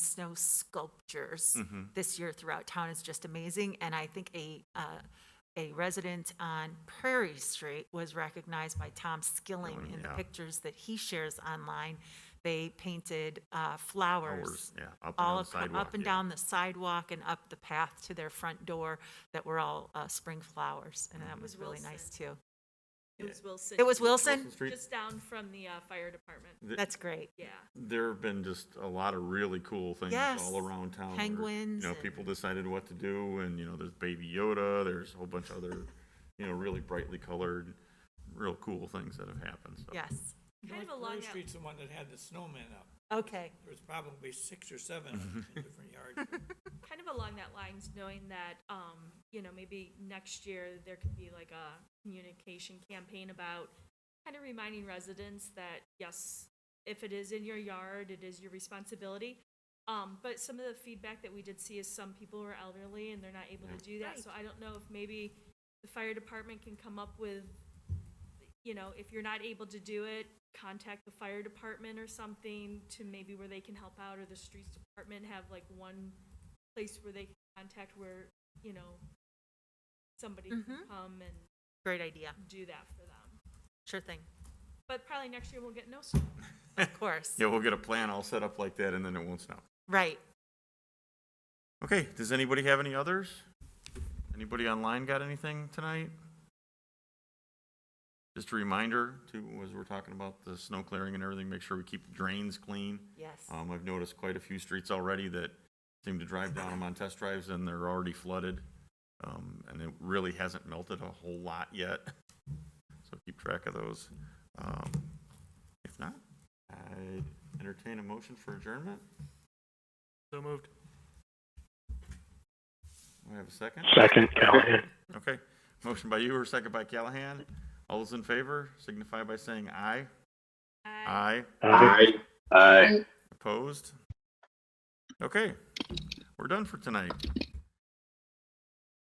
snow sculptures Mm-hmm. this year throughout town is just amazing. And I think a, uh, a resident on Prairie Street was recognized by Tom Skilling in the Oh, yeah. pictures that he shares online. They painted uh, flowers. Flowers, yeah, up and all down the ac- sidewalk, Up and yeah. down the sidewalk and up the path to their front door that were all uh, spring flowers. And Mm-hmm. that was really nice too. It was Wilson. It was Wilson? Wilson Street. Just down from the uh, fire department. Th- That's great. Yeah. There have been just a lot of really cool things Yes. all around town. where, Penguins You know, and- people decided what to do, and you know, there's Baby Yoda. There's a whole bunch of other, you know, really brightly colored, real cool things that have happened. So. Yes. Kind of a North long Brewery out. Street's the one that had the snowman up. Okay. There was probably six or seven of them in different yards. kind of along that lines, knowing that, um, you know, maybe next year there could be like a communication campaign about kind of reminding residents that, yes, if it is in your yard, it is your responsibility. Um, but some of the feedback that we did see is some people were elderly and they're not able to do that. So I don't know if maybe the fire department can come up with, you know, if you're not able to do it, contact the fire department or something to maybe where they can help out or the streets department have like one place where they can contact where, you know, somebody can Mhm. come and Great idea. do that for them. Sure thing. But probably next year we'll get no snow. Of course. Yeah, we'll get a plan all set up like that, and then it won't snow. Right. Okay. Does anybody have any others? Anybody online got anything tonight? Just a reminder to as we're talking about the snow clearing and everything, make sure we keep the drains clean. Yes. Um, I've noticed quite a few streets already that seem to drive down them on test drives and they're already flooded. Um, and it really hasn't melted a whole lot yet. So keep track of those. Um, if not, I entertain a motion for adjournment. So moved. We have a second. Second, Callahan. Okay. Motion by you or second by Callahan. All those in favor signify by saying aye. Aye. Aye. Aye. Opposed? Okay. We're done for tonight.